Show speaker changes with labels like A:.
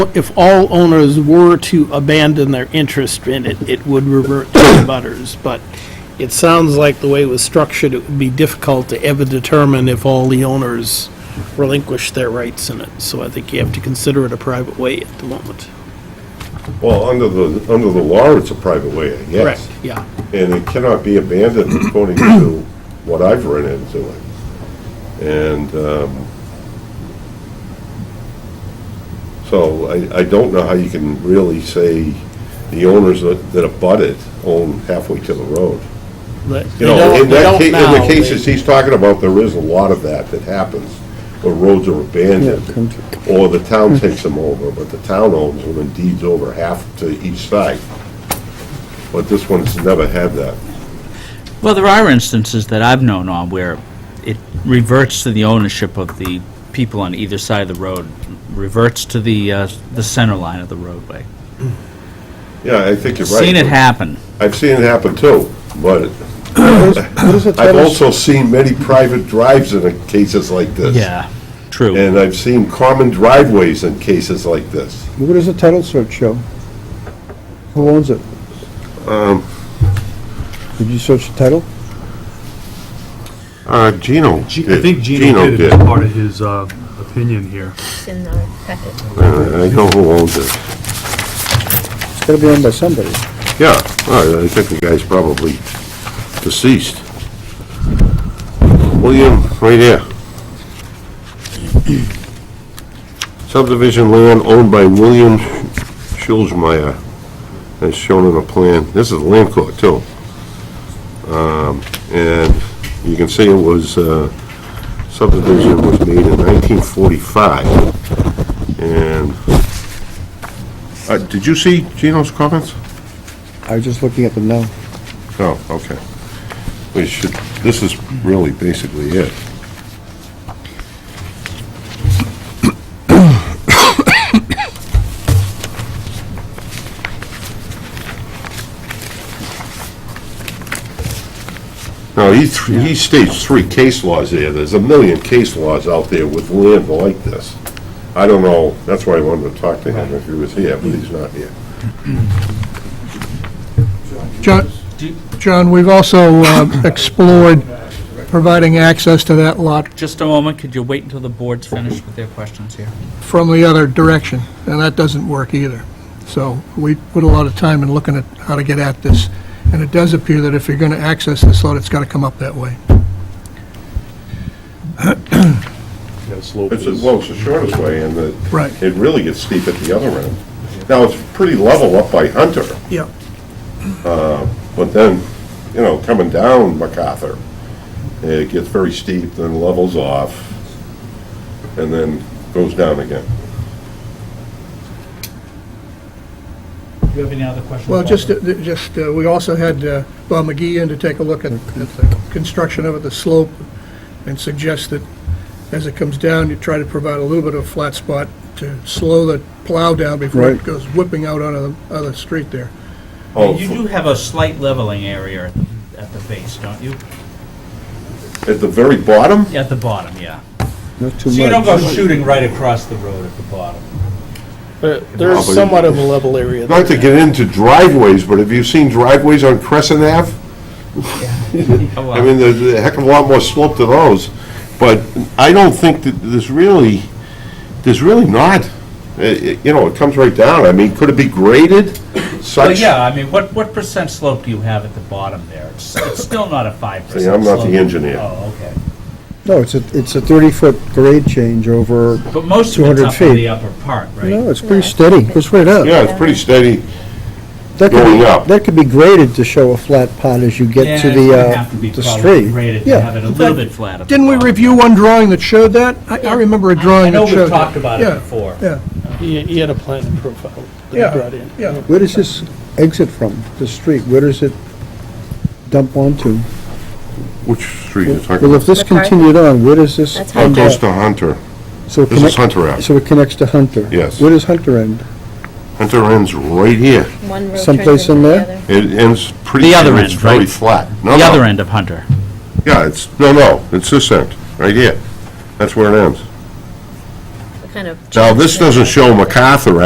A: if all owners were to abandon their interest in it, it would revert to the butters, but it sounds like the way it was structured, it would be difficult to ever determine if all the owners relinquish their rights in it, so I think you have to consider it a private way at the moment.
B: Well, under the, under the law, it's a private way, I guess.
A: Correct, yeah.
B: And it cannot be abandoned according to what I've run into it. And, um, so I, I don't know how you can really say the owners that that abut it own halfway to the road.
A: They
B: You
A: they
B: know,
A: don't,
B: in
A: they
B: that,
A: don't
B: ca- in
A: now.
B: the cases
A: They-
B: he's talking about, there is a lot of that that happens, where roads are abandoned, or the town takes them over, but the town owns them and deeds over half to each side. But this one's never had that.
C: Well, there are instances that I've known on where it reverts to the ownership of the people on either side of the road, reverts to the, uh, the center line of the roadway.
B: Yeah, I think you're right.
C: Seen it happen.
B: I've seen it happen too, but I've also seen many private drives in cases like this.
C: True.
B: And I've seen common driveways in cases like this.
D: What does the title search show? Who owns it?
B: Um,
D: Did you search the title?
B: Uh, Gino
E: G- I think Gino did it as part of his uh, opinion here.
F: It's in our packet.
B: I know who owns it.
D: It's gotta be owned by somebody.
B: Yeah, well, I think the guy's probably deceased. William, right here. Subdivision land owned by William Schulzmeyer, as shown on the plan. This is land court, too. Um, And you can see it was, uh, subdivision was made in 1945. And, uh, did you see Gino's comments?
D: I was just looking at them now.
B: Oh, okay. We should, this is really basically it. Now, he, th- he states three case laws there. There's a million case laws out there with land like this. I don't know, that's why I wanted to talk to him if he was here, but he's not here.
G: John, John, we've also uh, explored providing access to that lot
C: Just a moment, could you wait until the board's finished with their questions here?
G: from the other direction, and that doesn't work either. So we put a lot of time in looking at how to get at this, and it does appear that if you're going to access this lot, it's got to come up that way.
E: Yeah, slope
B: It's,
E: is-
B: well, it's the shortest way, and the.
G: Right.
B: It really gets steep at the other end. Now, it's pretty level up by Hunter,
G: Yeah.
B: but then, you know, coming down MacArthur, it gets very steep, then levels off, and then goes down again.
C: Do you have any other questions?
G: Well, just, uh, th- just, uh, we also had uh, Bob McGee in to take a look at at the construction of it, the slope, and suggest that as it comes down, you try to provide a little bit of flat spot to slow the plow down before it
D: Right.
G: goes whipping out onto the other street there.
B: Oh,
C: You do have a slight leveling area at the, at the base, don't you?
B: at the very bottom?
C: At the bottom, yeah.
D: Not
C: So
D: too much.
C: you don't go shooting right across the road at the bottom.
A: but There's somewhat of a level area
B: Not to
A: there.
B: get into driveways, but have you seen driveways on Crescent Ave?
C: Oh,
B: I
C: well.
B: mean, there's a heck of a lot more slope to those, but I don't think that there's really, there's really not. Uh, uh, You know, it comes right down. I mean, could it be graded
C: Well,
B: such?
C: yeah, I mean, what, what percent slope do you have at the bottom there? It's, it's still not a five percent
B: See,
C: slope.
B: I'm not the engineer.
C: Oh, okay.
D: No, it's a, it's a thirty-foot grade change over,
C: But most of it's
D: 200
C: up in
D: feet.
C: the upper part,
D: no,
C: right?
D: it's pretty steady, goes right up.
B: Yeah, it's pretty steady.
D: That could be-
B: going up.
D: That could be graded to show a flat pot as you
C: Yeah,
D: get to
C: it's
D: the,
C: gonna
D: uh,
C: have to be
D: the
C: probably
D: street.
C: graded to
D: Yeah.
C: have it a little bit flat at the
G: Didn't we
C: bottom.
G: review one drawing that showed that? I I remember a
C: I
G: drawing
C: know
G: that
C: we've
G: showed
C: talked
G: that.
C: about it
G: Yeah,
C: before.
G: yeah,
A: He he had a planted profile that he brought
G: yeah,
A: in.
G: yeah.
D: Where does this exit from, the street? Where does it dump onto?
B: Which street is
D: Well, if this
F: The park?
D: continued on, where does this
F: That's
D: end
F: Hunter.
D: up?
B: to Hunter.
D: So it
B: This is
D: connect-
B: Hunter Ave.
D: So it connects to Hunter?
B: Yes.
D: Where does Hunter end?
B: Hunter ends right here.
F: One road turns
D: Someplace in
F: into the
D: there?
F: other.
B: It ends pretty.
C: The other
B: It's
C: end,
B: very
C: right?
B: flat.
C: The other end of Hunter.
B: Yeah, it's, no, no, it's this end, right here. That's where it ends.
F: What kind of
B: Now, this doesn't show MacArthur